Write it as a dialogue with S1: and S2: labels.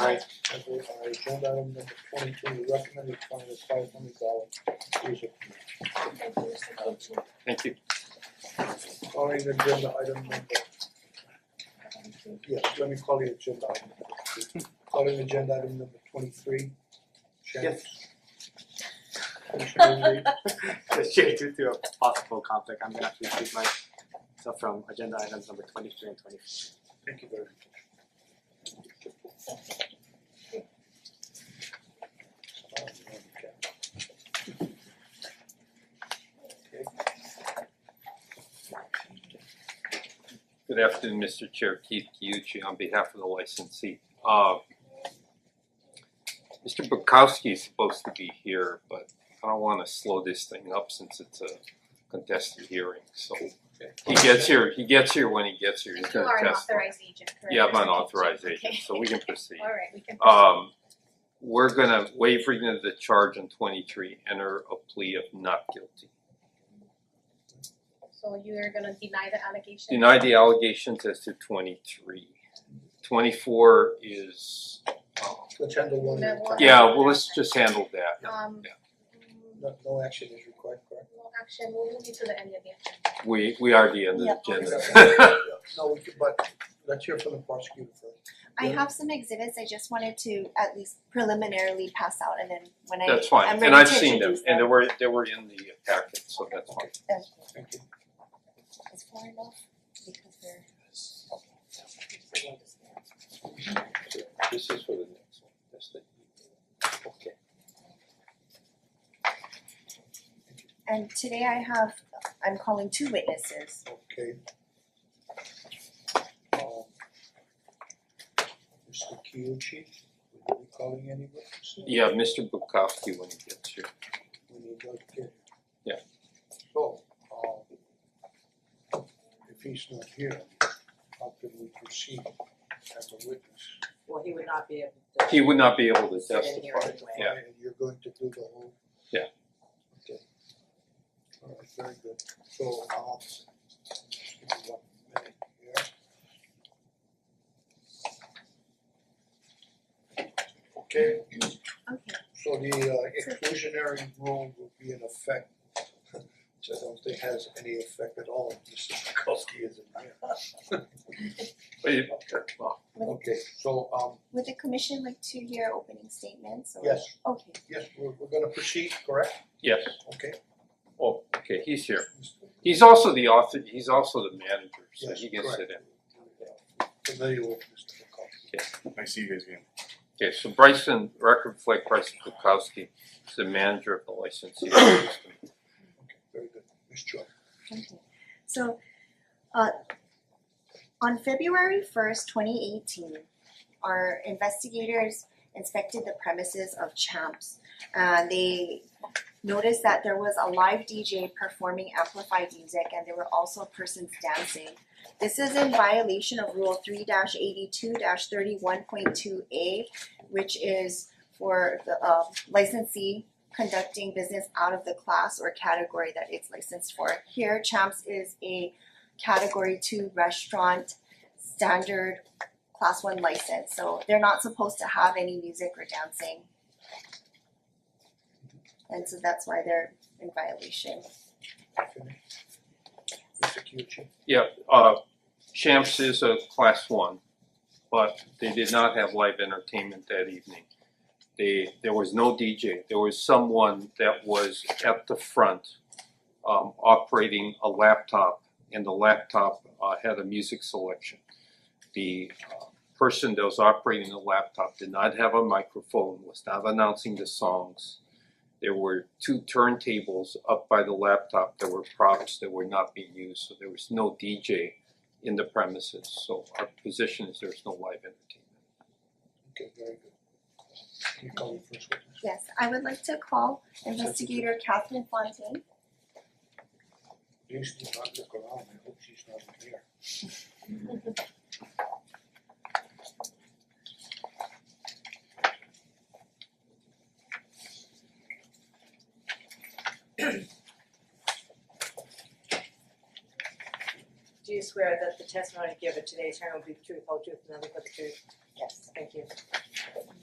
S1: Alright, I vote aye. agenda item number twenty two, the recommended fine is five hundred dollars. Please approve.
S2: Thank you, Mr. Cochi.
S3: Thank you.
S1: Calling agenda item number,
S2: Thank you.
S1: yes, let me call the agenda item number two. Calling agenda item number twenty three. Chance. Commissioner Lee,
S4: Just share due to a possible conflict, I'm gonna have to keep myself from agenda items number twenty three and twenty four.
S1: thank you very much. Okay.
S3: Good afternoon, Mr. Chair, Keith Kyuchi on behalf of the licensee. Uh Mr. Bukowski is supposed to be here, but I don't wanna slow this thing up since it's a contested hearing, so he gets here, he gets here when he gets here, he's
S2: You
S3: gonna
S2: are an
S3: test.
S2: authorized agent, correct?
S3: Yeah, I'm an
S2: Mr. Cochi?
S3: authorized agent,
S2: Okay.
S3: so we can proceed.
S2: Alright, we can proceed.
S3: Um we're gonna waive reading of the charge in twenty three, enter a plea of not guilty.
S2: So you are gonna deny the allegation?
S3: Deny the allegations as to twenty three. Twenty four is uh
S1: Let's handle one at a
S2: That
S1: time.
S2: one.
S3: yeah, well, let's just handle that.
S2: Um
S3: Yeah.
S2: mm,
S1: No no action is required, correct?
S2: no action, we'll move you to the end of the agenda.
S3: We we are the end of the
S5: Yeah.
S3: agenda.
S1: No, we could, but let's hear from the prosecutor first.
S5: I
S1: Yeah.
S5: have some exhibits, I just wanted to at least preliminarily pass out and then when I
S3: That's
S5: I'm
S3: fine, and
S5: ready
S3: I've
S5: to
S3: seen them,
S5: introduce
S3: and they
S5: them.
S3: were they were in the packet, so that's fine.
S1: Thank you.
S5: Is far enough because they're
S3: This is for the next one, that's the okay.
S5: and today I have I'm calling two witnesses.
S1: Okay. Um, Mr. Kiuchi, are we calling any witnesses?
S3: Yeah, Mr. Bukowski when he gets here.
S1: We need to get.
S3: Yeah.
S1: So, um, if he's not here, how can we proceed as a witness?
S6: Well, he would not be able to.
S3: He would not be able to
S6: Sit in here
S3: testify.
S6: anyway.
S3: Yeah.
S1: And you're going to do the whole?
S3: Yeah.
S1: Okay. Alright, very good, so, um, give me one minute here. Okay,
S5: Okay.
S1: so the uh, exclusionary rule will be in effect, which I don't think has any effect at all, if Mr. Bukowski isn't here.
S3: But it- well,
S1: Okay, so um,
S5: Would the commission like to hear opening statements or
S1: yes,
S5: okay.
S1: yes, we're we're gonna proceed, correct?
S3: Yes,
S1: Okay.
S3: oh, okay, he's here. He's also the author, he's also the manager, so
S1: Yes,
S3: he can
S1: correct.
S3: sit in.
S1: Familiar with Mr. Bukowski.
S7: Nice to see you guys again.
S3: Okay, so Bryson, record reflect Bryson Kukowski is the manager of the licensee system.
S1: Very good, Ms. Choi.
S5: Okay, so uh on February first, twenty eighteen, our investigators inspected the premises of Champs. Uh they noticed that there was a live DJ performing amplified music and there were also persons dancing. This is in violation of rule three eighty-two thirty one point two A, which is for the uh licensee conducting business out of the class or category that it's licensed for. Here, Champs is a category two restaurant standard class one license, so they're not supposed to have any music or dancing. And so that's why they're in violation.
S1: Finished? Mr. Kyuchi,
S3: Yeah, uh Champs is a class one, but they did not have live entertainment that evening. They, there was no DJ, there was someone that was at the front um operating a laptop and the laptop uh had a music selection. The uh, person that was operating the laptop did not have a microphone, was not announcing the songs. There were two turntables up by the laptop that were props that were not being used, so there was no DJ in the premises, so our position is there's no live entertainment.
S1: okay, very good. You call the first witness.
S5: Yes, I would like to call investigator Catherine Fontaine.
S1: Please do not look around, I hope she's not in here.
S6: Do you swear that the testimony given today, attorney will be the truth, whole truth, and nothing but the truth?
S5: Yes.
S6: Thank you.